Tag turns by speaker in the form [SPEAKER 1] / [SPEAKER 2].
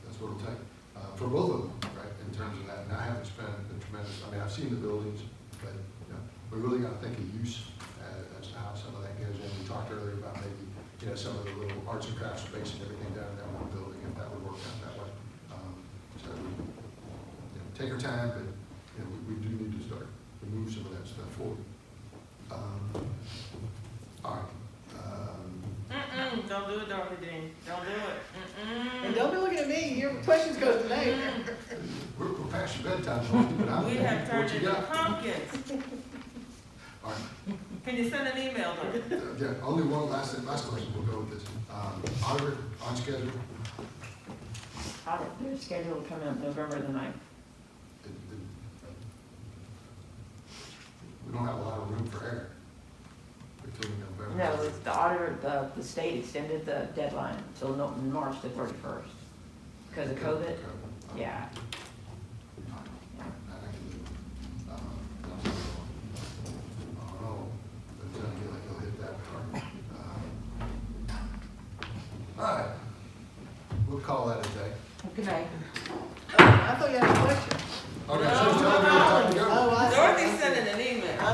[SPEAKER 1] little tight, uh, for both of them, right, in terms of that. And I haven't spent a tremendous, I mean, I've seen the buildings, but, you know, we really gotta think of use uh, as to how some of that goes in. We talked earlier about maybe, you know, some of the little arts and crafts space and everything down in that one building, if that would work out that way. Um, So, you know, take our time, but, you know, we, we do need to start to move some of that stuff forward. Um, All right, um,
[SPEAKER 2] Mm-mm, don't do it, Dorothy Dean. Don't do
[SPEAKER 3] And
[SPEAKER 2] it. Mm-mm.
[SPEAKER 3] don't be looking at me, your questions go to me.
[SPEAKER 2] Mm.
[SPEAKER 1] We're, we're past your bedtime, Dorothy, but I'm.
[SPEAKER 2] We have turned
[SPEAKER 1] What you
[SPEAKER 2] into
[SPEAKER 1] got?
[SPEAKER 2] pumpkins.
[SPEAKER 1] All right,
[SPEAKER 2] Can you send an email Dorothy?
[SPEAKER 1] uh, yeah, only one last, last question, we'll go with this. Um, auditor, on schedule,
[SPEAKER 4] Audit, they're scheduled to come out November the ninth.
[SPEAKER 1] It- it- we don't have a lot of room for error. Between November.
[SPEAKER 4] No, it's the auditor, the, the state extended the deadline till no- March the thirty-first because of COVID.
[SPEAKER 1] Okay.
[SPEAKER 4] Yeah.
[SPEAKER 1] All right.
[SPEAKER 4] yeah.
[SPEAKER 1] I can do it. Um, I don't know, but I feel like he'll hit that hard. Um, All right, we'll call that a day.
[SPEAKER 4] Good night.
[SPEAKER 3] I thought you had a question.
[SPEAKER 1] Okay,
[SPEAKER 2] No,
[SPEAKER 1] so tell me
[SPEAKER 2] no,